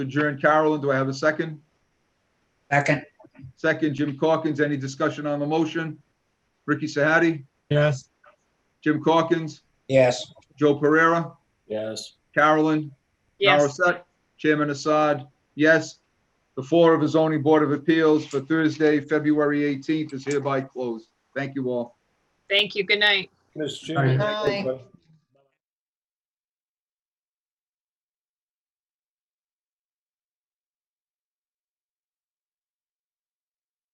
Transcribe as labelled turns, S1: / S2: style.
S1: adjourn. Carolyn, do I have a second?
S2: Second,
S1: Second, Jim Corkins. Any discussion on the motion? Ricky Sahadi,
S3: Yes.
S1: Jim Corkins,
S2: yes.
S1: Joe Pereira,
S3: Yes.
S1: Carolyn,
S4: Yes,
S1: Narasek, Chairman Assad, yes. The floor of the zoning board of appeals for Thursday, February 18th is hereby closed. Thank you all.
S4: thank you. Good night.
S5: Mr. Chairman.
S3: Aye.
S5: I have a que-